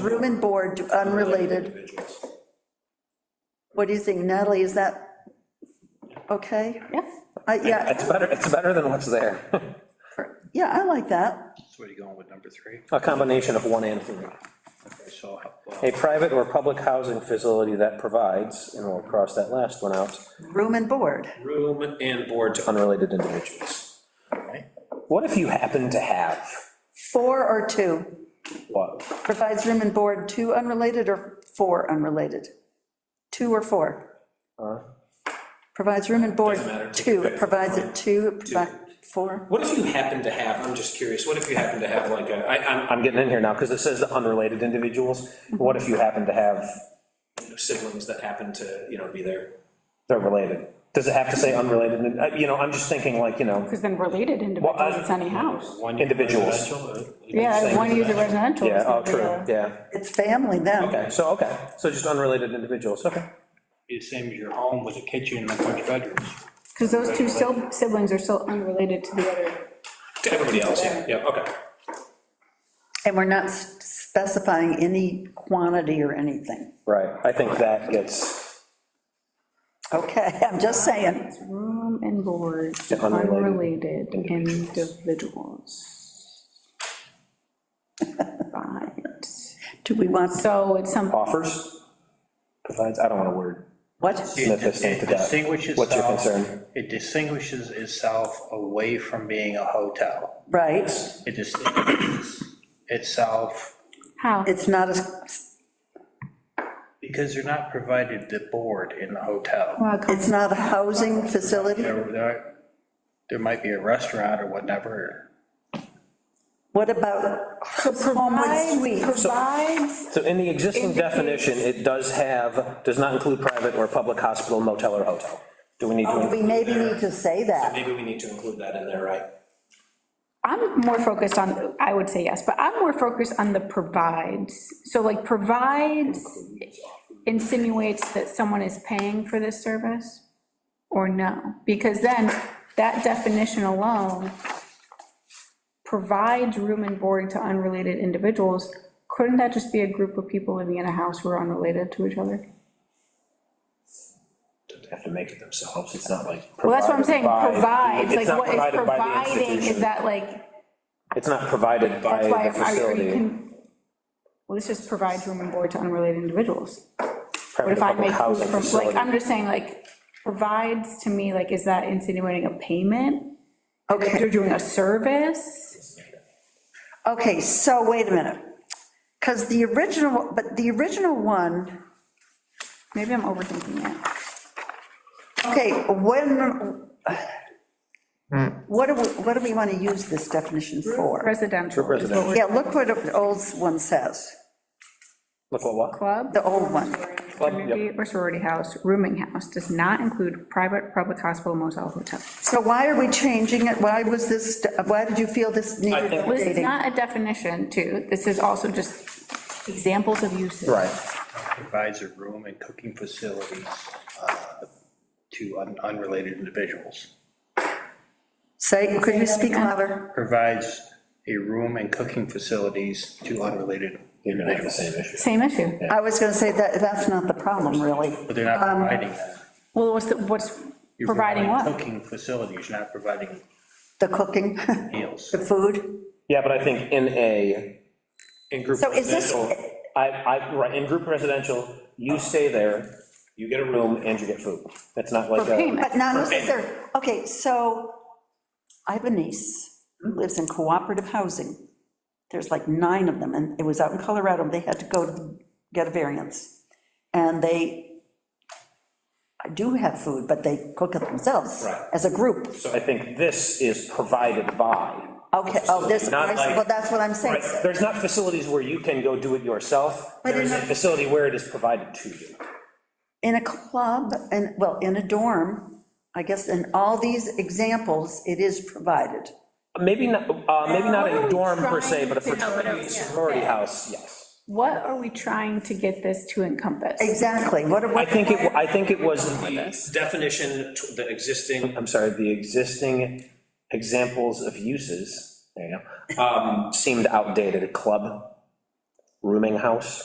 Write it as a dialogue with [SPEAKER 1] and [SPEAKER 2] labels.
[SPEAKER 1] room and board to unrelated.
[SPEAKER 2] individuals.
[SPEAKER 1] What do you think, Natalie, is that okay?
[SPEAKER 3] Yes.
[SPEAKER 1] I- Yeah,
[SPEAKER 4] It's better, it's better than what's there,
[SPEAKER 1] yeah, I like that.
[SPEAKER 2] So what are you going with number three?
[SPEAKER 4] a combination of one and three.
[SPEAKER 2] Okay, so, well,
[SPEAKER 4] A private or public housing facility that provides, and we'll cross that last one out,
[SPEAKER 1] Room and board.
[SPEAKER 2] room and board to,
[SPEAKER 4] unrelated individuals.
[SPEAKER 2] right?
[SPEAKER 4] What if you happen to have,
[SPEAKER 1] Four or two?
[SPEAKER 4] what,
[SPEAKER 1] Provides room and board, two unrelated or four unrelated? Two or four?
[SPEAKER 4] Huh?
[SPEAKER 1] Provides room and board,
[SPEAKER 2] Doesn't matter.
[SPEAKER 1] two, it provides it two, it provides, four?
[SPEAKER 2] What if you happen to have, I'm just curious, what if you happen to have like a, I, I'm,
[SPEAKER 4] I'm getting in here now, because it says the unrelated individuals, what if you happen to have,
[SPEAKER 2] I'm siblings that happen to, you know, be there?
[SPEAKER 4] they're related? Does it have to say unrelated, Uh, you know, I'm just thinking like, you know,
[SPEAKER 3] Because then related individuals, it's any house.
[SPEAKER 4] individuals,
[SPEAKER 5] uh,
[SPEAKER 3] Yeah, one user residential. uh,
[SPEAKER 4] yeah,
[SPEAKER 3] is
[SPEAKER 4] oh,
[SPEAKER 3] gonna be
[SPEAKER 4] true,
[SPEAKER 3] the-
[SPEAKER 4] yeah,
[SPEAKER 1] It's family then.
[SPEAKER 4] okay, so, okay, so just unrelated individuals, okay.
[SPEAKER 5] Be the same as your home with a kitchen and a bunch of bedrooms.
[SPEAKER 3] Because those two sil- siblings are still unrelated to the other.
[SPEAKER 2] To everybody else, yeah, yeah, okay.
[SPEAKER 1] And we're not s- specifying any quantity or anything.
[SPEAKER 4] Right, I think that gets
[SPEAKER 1] Okay, I'm just saying.
[SPEAKER 3] Room and board,
[SPEAKER 4] Yeah, unrelated
[SPEAKER 3] unrelated individuals. Right.
[SPEAKER 1] Do we want,
[SPEAKER 3] So it's some,
[SPEAKER 4] offers, provides, I don't want a word,
[SPEAKER 1] what?
[SPEAKER 4] Sniff this thing to
[SPEAKER 5] It
[SPEAKER 4] death.
[SPEAKER 5] distinguishes
[SPEAKER 4] What's your
[SPEAKER 5] itself-
[SPEAKER 4] concern?
[SPEAKER 5] It distinguishes itself away from being a hotel.
[SPEAKER 1] Right,
[SPEAKER 5] It distinguishes itself,
[SPEAKER 3] how?
[SPEAKER 1] it's not a,
[SPEAKER 5] because they're not provided the board in the hotel.
[SPEAKER 3] Well,
[SPEAKER 1] it's not a housing facility?
[SPEAKER 5] There, there- there might be a restaurant or whatever.
[SPEAKER 1] What about home with suites?
[SPEAKER 3] Provides,
[SPEAKER 4] So in the existing definition, it does have, does not include private or public hospital, motel, or hotel. Do we need
[SPEAKER 1] Oh,
[SPEAKER 4] to,
[SPEAKER 1] We maybe need to say that.
[SPEAKER 2] Maybe we need to include that in there, right?
[SPEAKER 3] I'm more focused on, I would say yes, but I'm more focused on the provides. So like provides insinuates that someone is paying for this service or no? Because then that definition alone provides room and board to unrelated individuals. Couldn't that just be a group of people living in a house who are unrelated to each other?
[SPEAKER 4] Don't have to make it themselves, it's not like.
[SPEAKER 3] Well, that's what I'm saying,
[SPEAKER 4] provide-
[SPEAKER 3] provides,
[SPEAKER 4] It's
[SPEAKER 3] like
[SPEAKER 4] not
[SPEAKER 3] what is
[SPEAKER 4] provided by the
[SPEAKER 3] providing, is
[SPEAKER 4] institution.
[SPEAKER 3] that like
[SPEAKER 4] It's not provided by
[SPEAKER 3] That's why,
[SPEAKER 4] the
[SPEAKER 3] are you,
[SPEAKER 4] facility.
[SPEAKER 3] can, well, this just provides room and board to unrelated individuals. But
[SPEAKER 4] private
[SPEAKER 3] if I
[SPEAKER 4] public
[SPEAKER 3] make food
[SPEAKER 4] housing
[SPEAKER 3] from, like,
[SPEAKER 4] facility.
[SPEAKER 3] I'm just saying, like, provides to me, like, is that insinuating a payment? That
[SPEAKER 1] Okay,
[SPEAKER 3] you're doing a service?
[SPEAKER 1] okay, so wait a minute. Because the original, but the original one,
[SPEAKER 3] Maybe I'm overthinking it.
[SPEAKER 1] okay, when, what do we, what do we want to use this definition for?
[SPEAKER 3] Residential is what we're,
[SPEAKER 1] Yeah, look what the old one says,
[SPEAKER 4] Look what, what?
[SPEAKER 3] club,
[SPEAKER 1] the old one.
[SPEAKER 3] community or sorority house, rooming house, does not include private, public hospital, motel, hotel.
[SPEAKER 1] So why are we changing it? Why was this, why did you feel this needed
[SPEAKER 2] think-
[SPEAKER 3] This is
[SPEAKER 1] updating?
[SPEAKER 3] not a definition, too, this is also just examples of uses.
[SPEAKER 4] Right,
[SPEAKER 5] Provides a room and cooking facilities uh, to un- unrelated individuals.
[SPEAKER 1] Say, could you speak louder?
[SPEAKER 5] Provides a room and cooking facilities to unrelated
[SPEAKER 4] you're gonna have the
[SPEAKER 5] individuals.
[SPEAKER 4] same issue.
[SPEAKER 3] Same issue.
[SPEAKER 1] I was going to say that, that's not the problem, really.
[SPEAKER 5] But they're not providing that.
[SPEAKER 3] Well, what's, the- what's
[SPEAKER 5] You're
[SPEAKER 3] Um, providing what?
[SPEAKER 5] Cooking facilities, you're not providing
[SPEAKER 1] The cooking,
[SPEAKER 5] meals.
[SPEAKER 1] the food.
[SPEAKER 4] Yeah, but I think in a,
[SPEAKER 2] In group
[SPEAKER 1] So is this-
[SPEAKER 2] residential,
[SPEAKER 4] I, I, right, in group residential, you stay there, you get a room, and you get food. It's not like
[SPEAKER 3] For
[SPEAKER 4] a.
[SPEAKER 3] payment.
[SPEAKER 1] But now, this is there, okay, so I have a niece who lives in cooperative housing. There's like nine of them, and it was out in Colorado, they had to go to get a variance. And they, I do have food, but they cook it themselves.
[SPEAKER 2] Right.
[SPEAKER 1] As a group.
[SPEAKER 4] So I think this is provided by.
[SPEAKER 1] Okay, oh, this,
[SPEAKER 4] Not like-
[SPEAKER 1] well, that's what I'm saying.
[SPEAKER 4] Right, There's not facilities where you can go do it yourself.
[SPEAKER 1] But
[SPEAKER 4] There's
[SPEAKER 1] in
[SPEAKER 4] a
[SPEAKER 1] a-
[SPEAKER 4] facility where it is provided to you.
[SPEAKER 1] in a club, and, well, in a dorm, I guess, in all these examples, it is provided.
[SPEAKER 4] Maybe not, uh, maybe not
[SPEAKER 3] What are
[SPEAKER 4] a
[SPEAKER 3] we
[SPEAKER 4] dorm per se,
[SPEAKER 3] trying
[SPEAKER 4] but a
[SPEAKER 3] to-
[SPEAKER 4] fraternity sorority house, yes.
[SPEAKER 3] What are we trying to get this to encompass?
[SPEAKER 1] Exactly, what are
[SPEAKER 4] I
[SPEAKER 1] we,
[SPEAKER 4] think it, wa- I think it was,
[SPEAKER 2] the definition, to the existing
[SPEAKER 4] I'm sorry, the existing examples of uses, there you go, um, seemed outdated. A club, rooming house?